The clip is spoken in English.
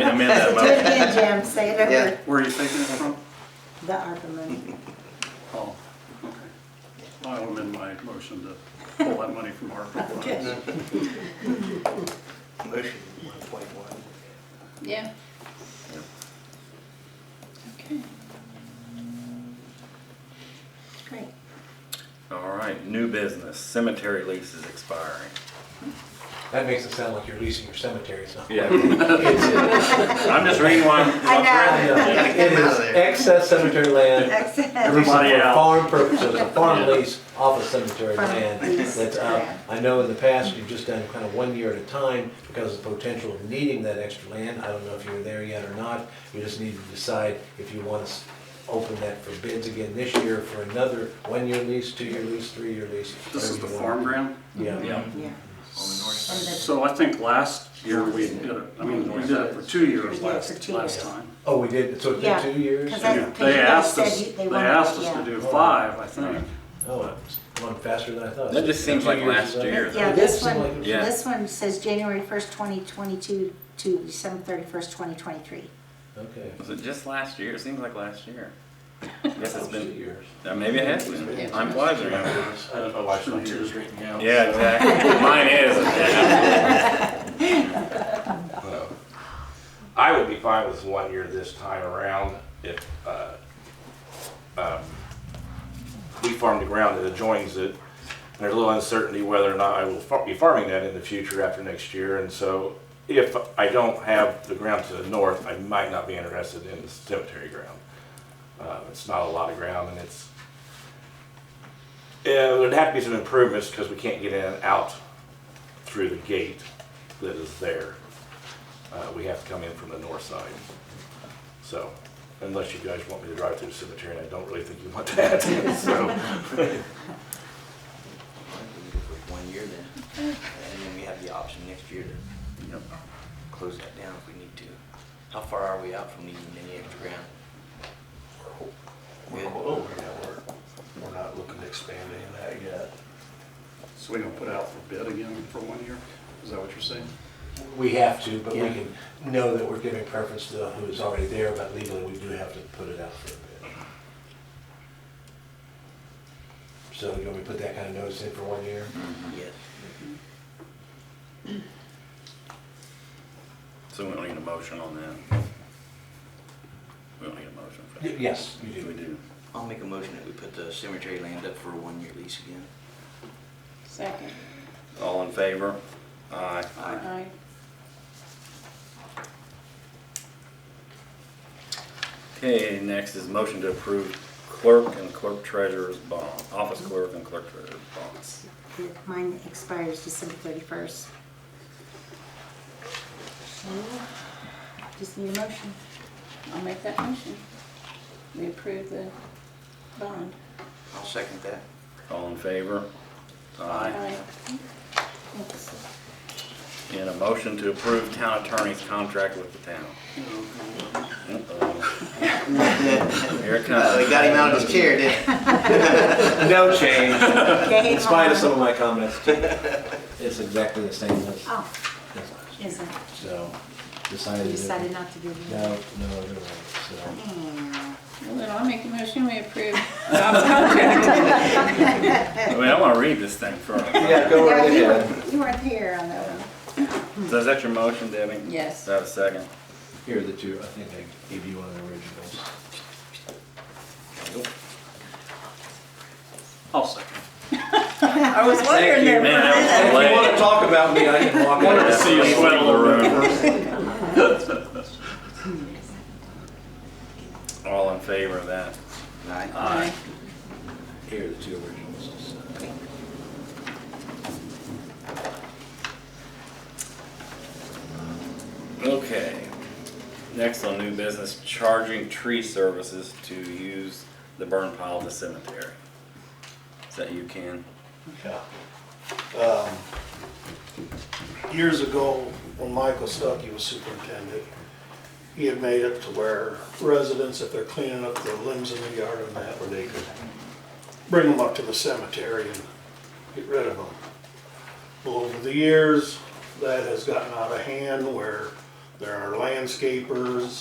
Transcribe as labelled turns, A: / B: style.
A: am- amend that
B: Do it
A: motion.
B: again, Jim, say it
C: Yeah.
B: over,
D: Where are you taking it from?
B: the ARPA money.
D: Oh, okay. I'll amend my motion to pull that money from ARPA funds.
C: Motion one point one.
E: Yeah. Okay.
B: Great.
A: All right, new business, cemetery lease is expiring.
F: That makes it sound like you're leasing your cemetery, so.
A: Yeah. I'm just reading why.
B: I know.
C: Yeah, get
F: It
C: him out
F: is
C: of there.
F: excess cemetery land.
B: Excellent.
D: Everybody
F: leasing for
D: out.
F: Farm purposes, a farm
A: Yeah.
F: lease off of cemetery
B: Farm
F: land
B: lease,
F: that's up.
B: correct.
F: I know in the past, you've just done kind of one year at a time because of the potential of needing that extra land. I don't know if you're there yet or not. You just need to decide if you want to open that for bids again this year for another one-year lease, two-year lease, three-year lease.
D: This is the
F: whatever you
D: farm
F: want.
D: ground?
F: Yeah.
A: Yeah,
B: Yeah.
D: Oh,
C: side.
B: And the-
D: So I think last year we did it, I mean, we did it for two years last, last time.
F: Oh, we did, so it's been
B: Yeah,
F: two years?
B: 'cause I-
D: Yeah, They asked us, they asked us to do five, I think.
F: Oh, it's going faster than I thought.
A: That just seems
F: Two
A: like
F: years
A: last
F: is up.
A: year.
B: Yeah,
F: It
B: this
F: did seem
B: one-
F: like it was-
A: Yeah.
B: This one says January first, twenty twenty-two to December thirty-first, twenty twenty-three.
F: Okay.
A: Was it just last year? It seems like last year. Guess it's
F: Two
A: been,
F: years.
A: uh, maybe it has been. Time flies around.
D: I don't know why it's not here.
A: Yeah, exactly. Mine is.
G: I would be fine with one year this time around if, uh, um, we farm the ground that adjoins it. There's a little uncertainty whether or not I will fa- be farming that in the future after next year. And so if I don't have the ground to the north, I might not be interested in the cemetery ground. Uh, It's not a lot of ground and it's, yeah, there'd have to be some improvements because we can't get in and out through the gate that is there. Uh, we have to come in from the north side. So, unless you guys want me to drive through the cemetery, and I don't really think you want that, so.
C: One year then, and then we have the option next year to
D: Yep.
C: close that down if we need to. How far are we out from needing any extra ground?
H: We're over now, we're, we're not looking to expand any of that yet.
D: So we gonna put out for bid again for one year? Is that what you're saying?
F: We have to, but we
C: Yeah.
F: can know that we're giving preference to who's already there, but legally, we do have to put it out for a bit. So, you know, we put that kind of notice in for one year?
C: Yes.
A: So we don't need a motion on that. We don't need a motion for
F: Y-
A: that.
F: Yes, you
A: We
F: do.
A: do.
C: I'll make a motion that we put the cemetery land up for a one-year lease again.
E: Second.
A: All in favor? Aye.
E: Aye.
A: Okay, next is motion to approve clerk and clerk treasurer's bond, office clerk and clerk treasurer's bonds.
B: Mine expires December thirty-first. Just need a motion.
E: I'll make that motion. We approve the bond.
C: I'll second that.
A: All in favor?
E: Aye.
B: Thanks.
A: And a motion to approve town attorney's contract with the town. Uh-oh. Here it
C: Uh,
A: comes.
C: we got him out of his chair, didn't we?
F: No change,
B: Game
F: in spite of
B: on.
F: some of my comments. It's exactly the same as,
B: Oh,
F: as last year.
B: is it?
F: so
B: You
F: decided. it-
B: decided not to give me.
F: No, no, other way, so.
B: Yeah.
E: Well, then I'll make a motion, we approve Bob's contract.
A: I mean, I want to read this thing first.
F: Yeah, go
B: Yeah,
F: right
B: you
F: ahead.
B: were- You weren't here on that one.
A: So is that your motion, Debbie?
E: Yes.
A: Is that a second?
F: Here are the two, I think I gave you one of the originals.
D: I'll second.
E: I was wondering there.
A: Man, that
F: If
A: was
F: you
A: late.
F: wanna talk about me, I can walk
D: Wanted to
F: out.
D: see you sweat a little bit.
A: All in favor of that?
C: Aye.
E: Aye.
F: Here are the two originals.
A: Okay. Next on new business, charging tree services to use the burn pile of the cemetery. Is that you, Ken?
H: Um, Years ago, when Michael Stuckey was superintendent, he had made it to where residents, if they're cleaning up their limbs in the yard and that, where they could bring them up to the cemetery and get rid of them. Well, over the years, that has gotten out of hand where There are landscapers,